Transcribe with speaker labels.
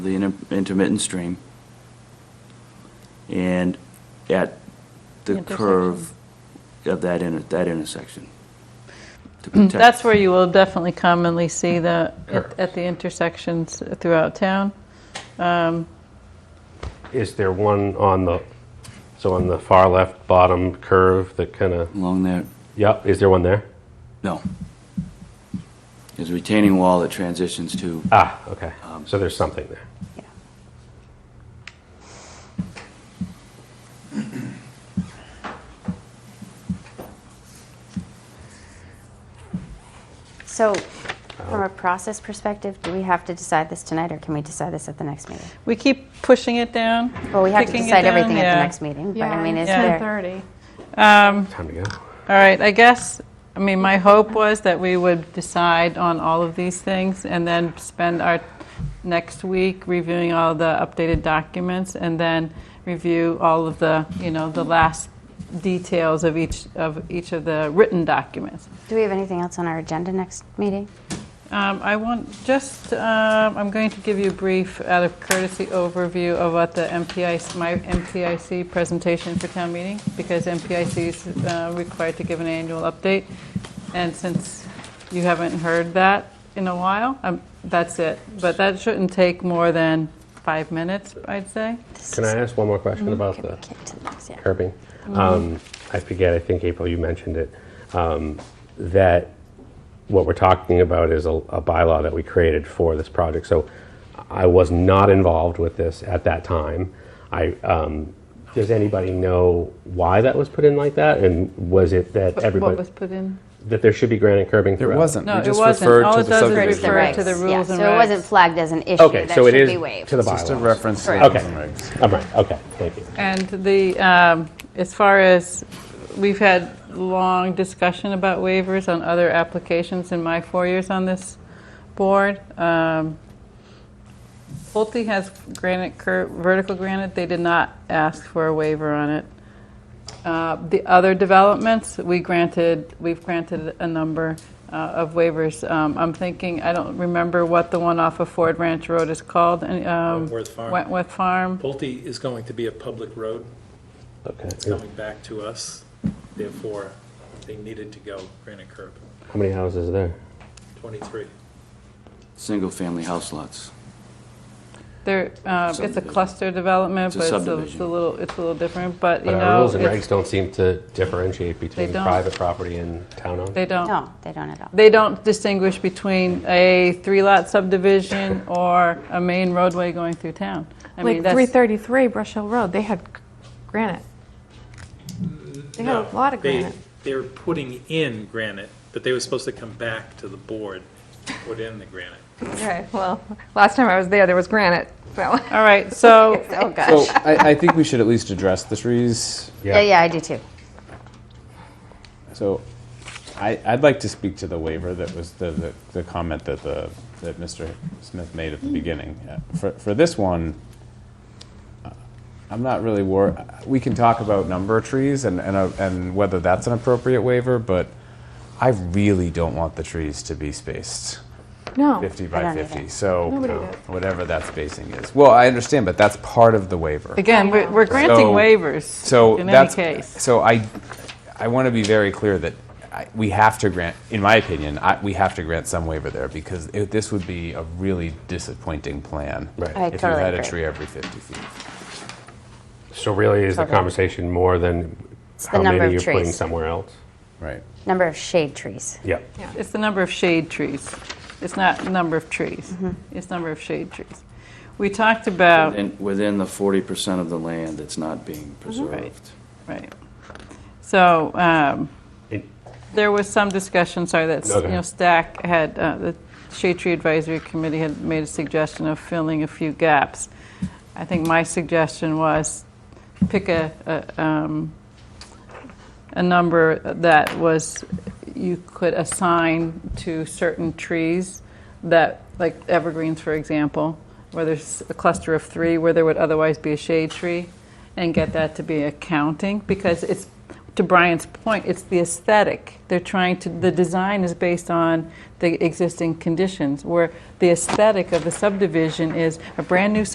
Speaker 1: the inter- intermittent stream. And at the curve of that inter, that intersection. to protect-
Speaker 2: Mm, That's where you will definitely commonly see the,
Speaker 1: Sure.
Speaker 2: at- at the intersections throughout town.
Speaker 3: Is there one on the, so on the far left bottom curve that kind of,
Speaker 1: Along there,
Speaker 3: yep, is there one there?
Speaker 1: no. There's a retaining wall that transitions to,
Speaker 3: Ah, okay,
Speaker 2: Um,
Speaker 3: so there's something there.
Speaker 4: So, from a process perspective, do we have to decide this tonight, or can we decide this at the next meeting?
Speaker 2: We keep pushing it down.
Speaker 4: Well, we have to
Speaker 2: kicking it
Speaker 4: decide
Speaker 2: down,
Speaker 4: everything at
Speaker 2: yeah.
Speaker 4: the next meeting, but I mean, is
Speaker 2: Yeah.
Speaker 4: there,
Speaker 5: 10:30.
Speaker 3: Time to go.
Speaker 2: All right, I guess, I mean, my hope was that we would decide on all of these things and then spend our next week reviewing all the updated documents and then review all of the, you know, the last details of each, of each of the written documents.
Speaker 4: do we have anything else on our agenda next meeting?
Speaker 2: Um, I want, just, um, I'm going to give you a brief, out of courtesy, overview of what the MPIC, my MPIC presentation for town meeting, because MPIC is uh, required to give an annual update, and since you haven't heard that in a while, um, that's it. But that shouldn't take more than five minutes, I'd say.
Speaker 3: Can I ask one more question
Speaker 2: Mm-hmm.
Speaker 3: about the
Speaker 4: Get to the next, yeah.
Speaker 3: curbing? Um, I forget, I think April, you mentioned it, um, that what we're talking about is a a bylaw that we created for this project. So I was not involved with this at that time. I, um, does anybody know why that was put in like that? And was it that everybody?
Speaker 2: What was put in?
Speaker 3: that there should be granite curbing
Speaker 6: There
Speaker 3: throughout.
Speaker 6: wasn't.
Speaker 2: No,
Speaker 6: We
Speaker 2: it
Speaker 6: just
Speaker 2: wasn't.
Speaker 6: referred
Speaker 2: All
Speaker 6: to
Speaker 2: it
Speaker 6: the
Speaker 2: does is
Speaker 6: subject
Speaker 2: refer
Speaker 6: matter.
Speaker 2: to the
Speaker 4: yeah,
Speaker 2: rules and
Speaker 4: So it wasn't
Speaker 2: regs.
Speaker 4: flagged as an issue
Speaker 3: Okay,
Speaker 4: that
Speaker 3: so it
Speaker 4: should be
Speaker 3: is
Speaker 4: waived.
Speaker 3: to the
Speaker 6: Just a
Speaker 3: bylaws.
Speaker 6: reference. to
Speaker 4: Correct.
Speaker 6: the
Speaker 3: Okay,
Speaker 6: regs.
Speaker 3: all right, okay, thank you.
Speaker 2: And the, um, as far as, we've had long discussion about waivers on other applications in my four years on this board. Um, Pulte has granite, cur- vertical granite, they did not ask for a waiver on it. Uh, The other developments, we granted, we've granted a number uh, of waivers. Um, I'm thinking, I don't remember what the one off of Ford Ranch Road is called. and, um,
Speaker 7: Wentworth Farm.
Speaker 2: Wentworth Farm.
Speaker 7: Pulte is going to be a public road, it's
Speaker 3: Okay,
Speaker 7: coming back to us, therefore, they needed to go granite curb,
Speaker 3: how many houses are there?
Speaker 7: 23.
Speaker 1: single-family house lots.
Speaker 2: There, um, it's a
Speaker 1: Subdivision.
Speaker 2: cluster
Speaker 1: It's
Speaker 2: development,
Speaker 1: a
Speaker 2: but it's a- it's a
Speaker 1: subdivision.
Speaker 2: little, it's a little different, but, you
Speaker 3: But our
Speaker 2: know,
Speaker 3: rules and regs
Speaker 2: it's-
Speaker 3: don't seem to differentiate between
Speaker 2: don't.
Speaker 3: private property and town-owned.
Speaker 2: they don't,
Speaker 4: No, they don't at all.
Speaker 2: they don't distinguish between a three-lot subdivision or a main roadway going through town. I
Speaker 5: Like
Speaker 2: mean, that's,
Speaker 5: 333 Brush Hill Road, they had c- granite. They had a lot of granite.
Speaker 7: They're putting in granite, but they were supposed to come back to the board, to put in the granite.
Speaker 5: Okay, well, last time I was there, there was granite, so.
Speaker 2: all right, so,
Speaker 5: Oh, gosh.
Speaker 6: So I, I think we should at least address the trees.
Speaker 4: Yeah, yeah, I do too.
Speaker 6: So I, I'd like to speak to the waiver that was the, the, the comment that the, that Mr. Smith made at the beginning. Uh, For, for this one, uh, I'm not really wor, we can talk about number of trees and, and, a- and whether that's an appropriate waiver, but I really don't want the trees to be spaced.
Speaker 5: No,
Speaker 6: 50 by
Speaker 4: don't either.
Speaker 6: 50, so uh,
Speaker 5: Nobody does.
Speaker 6: whatever that spacing is. Well, I understand, but that's part of the waiver.
Speaker 2: again, we're we're granting
Speaker 6: So- So
Speaker 2: waivers in any
Speaker 6: that's
Speaker 2: case.
Speaker 6: so I I want to be very clear that I, we have to grant, in my opinion, I, we have to grant some waiver there because it, this would be a really disappointing plan.
Speaker 3: Right.
Speaker 4: I
Speaker 6: if
Speaker 4: totally
Speaker 6: you had a
Speaker 4: agree.
Speaker 6: tree every 50 feet.
Speaker 3: So really, is the
Speaker 4: Totally.
Speaker 3: conversation more than
Speaker 4: the
Speaker 3: how
Speaker 4: number
Speaker 3: many
Speaker 4: of
Speaker 3: you're putting
Speaker 4: trees.
Speaker 3: somewhere else?
Speaker 6: Right.
Speaker 4: Number of shade trees.
Speaker 3: Yeah.
Speaker 2: It's the number of shade trees. It's not number of trees. It's number of shade trees. We talked about.
Speaker 1: And within the 40% of the land that's not being preserved.
Speaker 2: Right. So um,
Speaker 3: It-
Speaker 2: there was some discussion, sorry, that, you
Speaker 3: Okay.
Speaker 2: know, Stack had, uh, the Shade Tree Advisory Committee had made a suggestion of filling a few gaps. I think my suggestion was pick a, a, um, a number that was, you could assign to certain trees that, like evergreens, for example, where there's a cluster of three where there would otherwise be a shade tree, and get that to be accounting, because it's, to Brian's point, it's the aesthetic. They're trying to, the design is based on the existing conditions, where the aesthetic of the subdivision is a brand-new